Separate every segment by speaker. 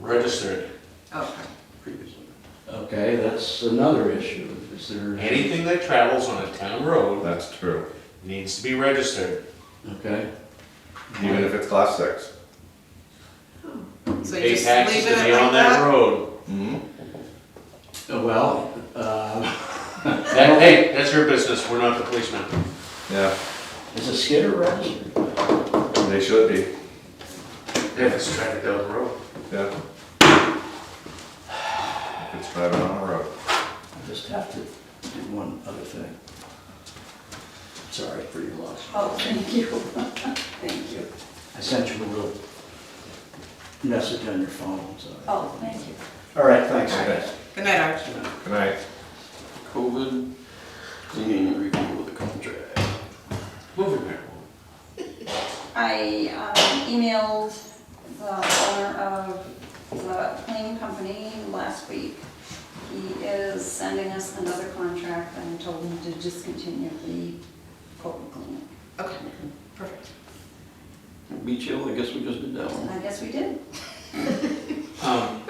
Speaker 1: registered
Speaker 2: Okay.
Speaker 1: previously.
Speaker 3: Okay, that's another issue. Is there?
Speaker 1: Anything that travels on a town road
Speaker 4: That's true,
Speaker 1: needs to be registered.
Speaker 3: Okay,
Speaker 4: even if it's class six.
Speaker 2: So you
Speaker 1: Pay
Speaker 2: just
Speaker 1: taxes
Speaker 2: leave
Speaker 1: to
Speaker 2: it at
Speaker 1: be on
Speaker 2: like
Speaker 1: that
Speaker 2: that?
Speaker 1: road.
Speaker 4: Mm-hmm.
Speaker 3: oh, well, uh,
Speaker 1: That- Hey, that's your business, we're not the policeman.
Speaker 4: Yeah,
Speaker 3: is a skidder registered?
Speaker 4: they should be,
Speaker 1: If it's traffic down the road.
Speaker 4: yeah. If it's driving on a road.
Speaker 3: I just have to do one other thing. Sorry for your loss.
Speaker 5: Oh, thank you. Thank you.
Speaker 3: I sent you a little message on your phone, sorry.
Speaker 5: Oh, thank you.
Speaker 3: All right, thanks,
Speaker 5: All right.
Speaker 3: guys.
Speaker 2: Good night, Archie.
Speaker 4: Good night.
Speaker 1: COVID, cleaning review of the contract. Moving there.
Speaker 5: I um, emailed the owner of the cleaning company last week. He is sending us another contract and told him to discontinue the Colton cleaning.
Speaker 2: Okay, perfect.
Speaker 6: Beach Hill, I guess we just did that one.
Speaker 5: I guess we did.
Speaker 1: Um,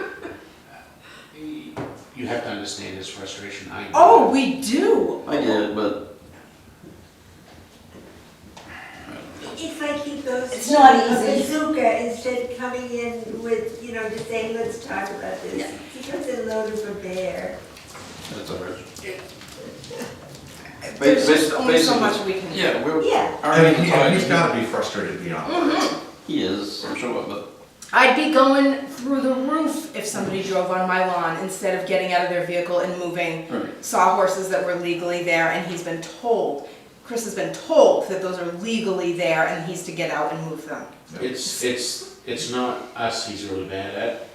Speaker 1: You have to understand his frustration, I know.
Speaker 2: Oh, we do.
Speaker 6: I did, but
Speaker 7: It's like he goes.
Speaker 5: It's not
Speaker 7: to a
Speaker 5: easy.
Speaker 7: Bazooka instead of coming in with, you know, just saying, let's talk about
Speaker 5: Yeah.
Speaker 7: this. He goes in loaded for bear.
Speaker 6: that's all right.
Speaker 2: There's just
Speaker 6: basi-
Speaker 2: only so
Speaker 6: basically-
Speaker 2: much we can do.
Speaker 6: Yeah, we're.
Speaker 7: Yeah,
Speaker 6: our hands are tied.
Speaker 4: gotta be frustrated beyond.
Speaker 6: He is, I'm sure, but
Speaker 2: I'd be going through the roof if somebody drove on my lawn instead of getting out of their vehicle and moving
Speaker 6: Right.
Speaker 2: sawhorses that were legally there, and he's been told, Chris has been told that those are legally there, and he's to get out and move them.
Speaker 1: It's, it's, it's not us he's really bad at.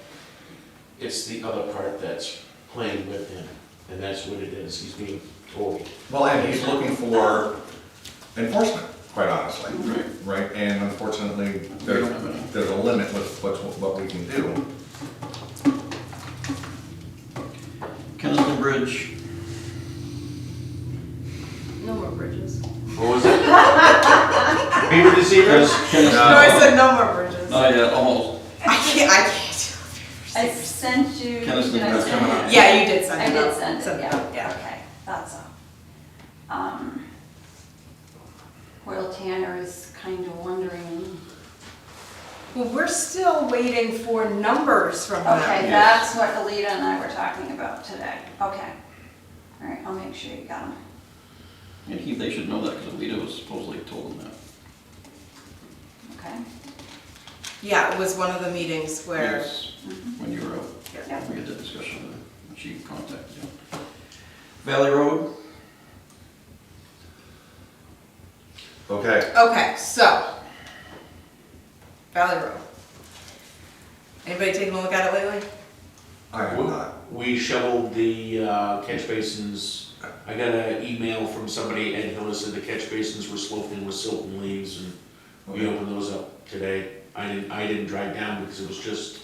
Speaker 1: It's the other part that's playing with him, and that's what it is, he's being told.
Speaker 4: Well, and he's looking for enforcement, quite honestly, right? And unfortunately, there's, there's a limit with what's, what we can do.
Speaker 6: Kennington Bridge,
Speaker 2: No more bridges.
Speaker 1: What was it? Beaver to zebras.
Speaker 2: No, I said no more bridges.
Speaker 6: oh yeah, almost.
Speaker 2: I can't, I can't.
Speaker 5: I sent you. did I
Speaker 6: Kenneth's
Speaker 5: send
Speaker 6: that's coming
Speaker 5: it?
Speaker 6: up.
Speaker 2: Yeah, you did send
Speaker 5: I
Speaker 2: it
Speaker 5: did
Speaker 2: out.
Speaker 5: send it,
Speaker 2: out,
Speaker 5: yeah, okay, that's all. Um, Hoyle Tanner is kind of wondering,
Speaker 2: Well, we're still waiting for numbers from them.
Speaker 5: okay, that's what Alita and I were talking about today, okay. All right, I'll make sure you got them.
Speaker 6: And he, they should know that because Alito was supposedly told them
Speaker 5: okay?
Speaker 2: Yeah, it was one of the meetings
Speaker 6: that.
Speaker 2: where. Mm-hmm.
Speaker 6: Yes, When you were out,
Speaker 5: Yeah.
Speaker 6: we had that discussion, and she contacted you. Valley Road,
Speaker 4: Okay,
Speaker 2: Okay, so Valley Road. Anybody taking a look at it lately?
Speaker 4: I have not.
Speaker 1: We shoveled the uh, catch basins. I got an email from somebody and noticed that the catch basins were sloping with silt and leaves and we
Speaker 4: Okay.
Speaker 1: opened those up today. I didn't, I didn't drive down because it was just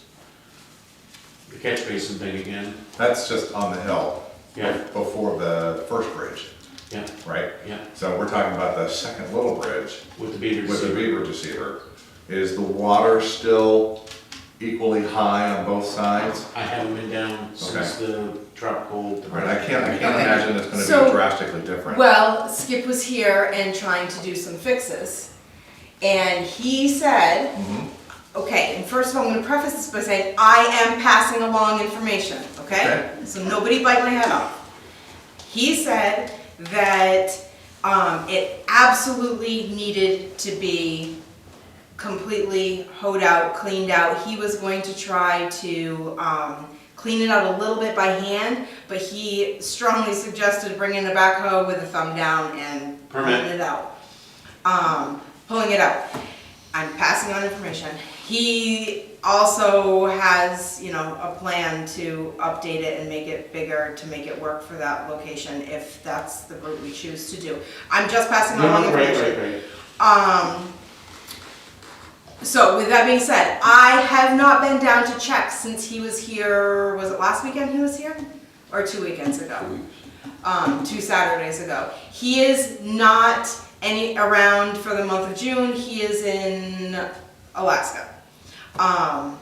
Speaker 1: the catch basin thing again.
Speaker 4: That's just on the hill
Speaker 1: Yeah,
Speaker 4: before the first bridge,
Speaker 1: yeah,
Speaker 4: right?
Speaker 1: yeah,
Speaker 4: So we're talking about the second little bridge
Speaker 1: with the beaver
Speaker 4: with the
Speaker 1: deceiver.
Speaker 4: beaver deceiver. Is the water still equally high on both sides?
Speaker 1: I haven't been down since the tropical.
Speaker 4: Right, I can't, I can't
Speaker 2: Okay.
Speaker 4: imagine it's gonna
Speaker 2: So-
Speaker 4: be drastically different.
Speaker 2: Well, Skip was here and trying to do some fixes. And he said,
Speaker 4: Mhm.
Speaker 2: okay, and first of all, I'm gonna preface this by saying, I am passing along information, okay?
Speaker 4: Okay.
Speaker 2: So nobody bite my head off. He said that, um, it absolutely needed to be completely hoed out, cleaned out. He was going to try to, um, clean it out a little bit by hand, but he strongly suggested bringing a backhoe with a thumb down and pulling
Speaker 1: Permit.
Speaker 2: it out. Um, pulling it out. I'm passing on information. He also has, you know, a plan to update it and make it bigger, to make it work for that location, if that's the route we choose to do. I'm just passing
Speaker 1: No,
Speaker 2: along
Speaker 1: no, right,
Speaker 2: information.
Speaker 1: right, right.
Speaker 2: Um, so with that being said, I have not been down to check since he was here, was it last weekend he was here? Or two weekends ago? Um, two Saturdays ago. He is not any, around for the month of June, he is in Alaska. Um,